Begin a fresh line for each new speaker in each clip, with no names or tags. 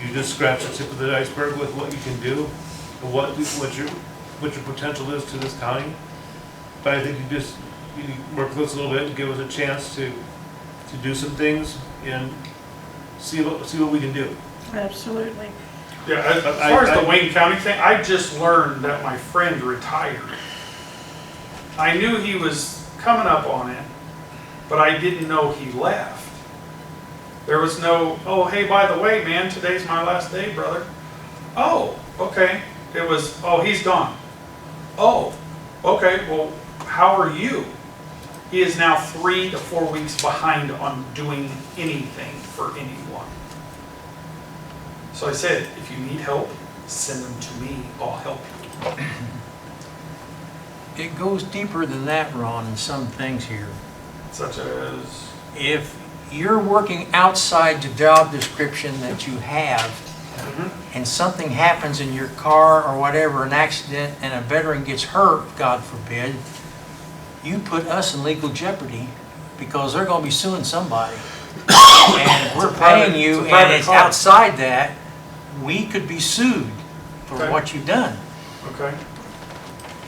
you just scratch the tip of the iceberg with what you can do, and what, what your, what your potential is to this county. But I think you just, you need to work with us a little bit and give us a chance to, to do some things and see what, see what we can do.
Absolutely.
Yeah, as as
I-
far as
I-
the Wayne County thing, I just learned that my friend retired. I knew he was coming up on it, but I didn't know he left. There was no, oh, hey, by the way, man, today's my last day, brother. Oh, okay. It was, oh, he's gone. Oh, okay, well, how are you? He is now three to four weeks behind on doing anything for anyone. So I said, if you need help, send them to me, I'll help you.
It goes deeper than that, Ron, in some things here.
Such as,
If you're working outside the job description that you have,
Mm-hmm.
and something happens in your car or whatever, an accident, and a veteran gets hurt, God forbid, you put us in legal jeopardy because they're gonna be suing somebody. And if we're
It's a private-
paying you
it's a private
and it's
car.
outside that, we could be sued for
Okay.
what you've done.
okay,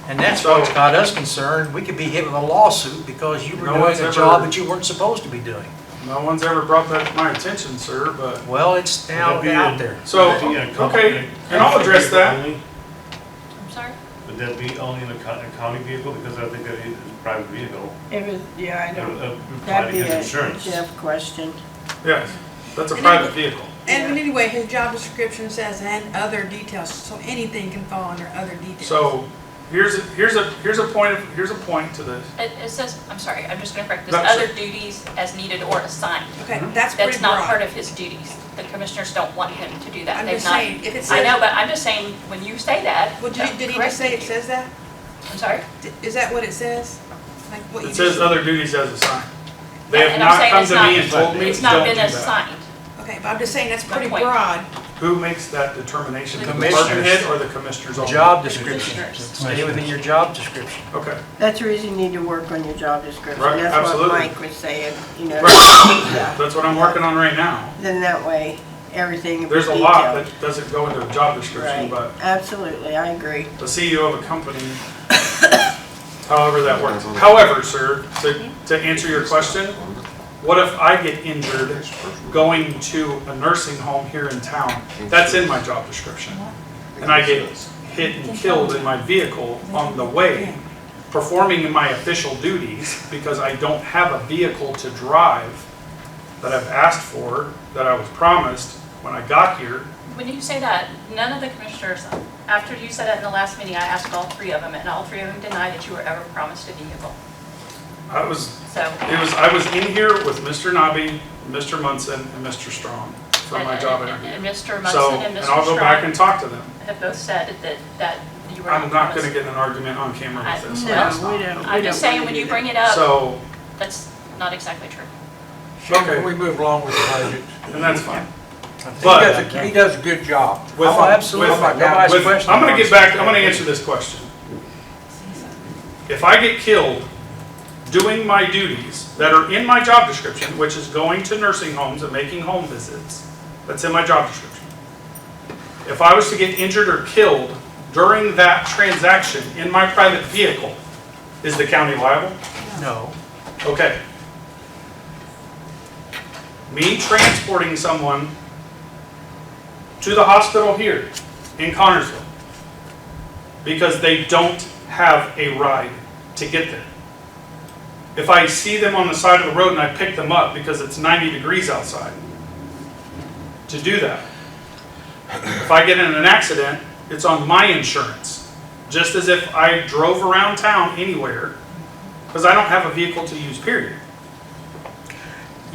And that's
So-
what's got us concerned, we could be hit with a lawsuit because you were
No
doing
one's
a
ever-
job that you weren't supposed to be doing.
no one's ever brought that to my attention, sir, but,
Well, it's
Would
now
that be
out
a-
there.
so,
Would that be in a co-
okay,
in a
and I'll
county
address
vehicle
that.
only?
I'm sorry?
Would that be only in a co- a county vehicle, because I think that is a private vehicle,
It was, yeah, I
it
know.
would apply to
That'd be
his
a
insurance.
Jeff question.
Yes, that's a private vehicle.
And but anyway, his job description says and other details, so anything can fall under other details.
So, here's, a- here's a, here's a point, of- here's a point to this.
It, it says, I'm sorry, I'm just gonna correct this,
No, sure.
other duties as needed or assigned.
Okay,
mm-hmm.
that's pretty
That's not part
broad.
of his duties. The commissioners don't want him to do that.
I'm
They've
just
not-
saying, if it
I know,
says,
but I'm just saying, when you say that.
well, did, he- did he
correct
just say it
me.
says that?
I'm sorry?
D- Is that what it says? Like what you
It
just?
says other duties as assigned. They have
And I'm
not
saying
come
it's
to
not-
me and told me,
It's not
don't do
been
that.
assigned.
uh,
Okay, but I'm just saying, that's
Good
pretty
point.
broad.
Who makes that determination? The department
Commissioners.
head or the commissioners only?
Job description,
Commissioners.
stay within your job description.
Okay,
That's the reason you need to work on your job description.
Right,
That's what
absolutely.
Mike was saying, you know.
Right.
Yeah.
that's what I'm working on right now.
Then that way, everything will be
There's a lot
detailed.
that doesn't go into a job
Right,
description, but
absolutely, I agree.
the CEO of a company, however that works. However, sir, to, to answer your question, what if I get injured going to a nursing home here in town? That's in my job description. And I get hit and killed in my vehicle on the way, performing my official duties because I don't have a vehicle to drive that I've asked for, that I was promised when I got here.
When you say that, none of the commissioners, after you said it in the last meeting, I asked all three of them, and all three of them denied that you were ever promised a vehicle.
I was
So,
It was, I was in here with Mr. Nobby, Mr. Munson, and Mr. Strong for my
and-
job
and-
interview.
And Mr.
So,
Munson and Mr.
and I'll go back
Strong
and talk to them.
have both said that, that you were
I'm not gonna
promised.
get in an argument on camera
I-
with this.
No,
so that's
we
not-
don't- we
I'm
don't
just saying,
wanna
when
do
you
that.
bring it up,
So,
that's not exactly true.
Okay.
We move along with the budget.
and that's fine.
He
But-
does, a- he does a good job.
With-
Oh, absolutely.
with-
Nobody's
with-
questioning
I'm gonna get
us.
back, I'm gonna answer this question. If I get killed doing my duties that are in my job description, which is going to nursing homes and making home visits, that's in my job description. If I was to get injured or killed during that transaction in my private vehicle, is the county liable?
No,
Okay. Me transporting someone to the hospital here in Connersville because they don't have a ride to get there. If I see them on the side of the road and I pick them up because it's 90 degrees outside to do that. If I get in an accident, it's on my insurance, just as if I drove around town anywhere because I don't have a vehicle to use, period.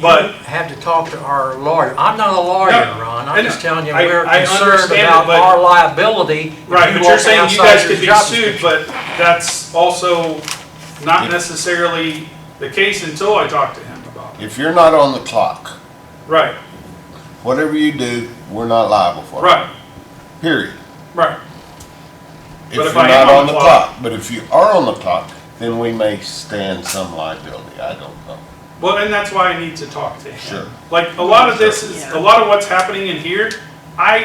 but
But,
have to talk to our lawyer. I'm not a lawyer,
No,
Ron,
I
I'm just
know.
telling you,
I-
we're
I
concerned
understand it,
about
but-
our liability. if
right, but
walk
you're saying you
outside
guys
your
could be
job
sued, but that's also not necessarily the case until I talk to him about it.
If you're not on the clock,
Right,
whatever you do, we're not liable for it.
right,
Period.
right. But
If you're
if I am
not on the
clock-
clock, but if you are on the clock, then we may stand some liability. I don't know.
Well, and that's why I need to talk to him.
Sure.
Like, a lot of this is,
Yeah.
a lot of what's happening in here I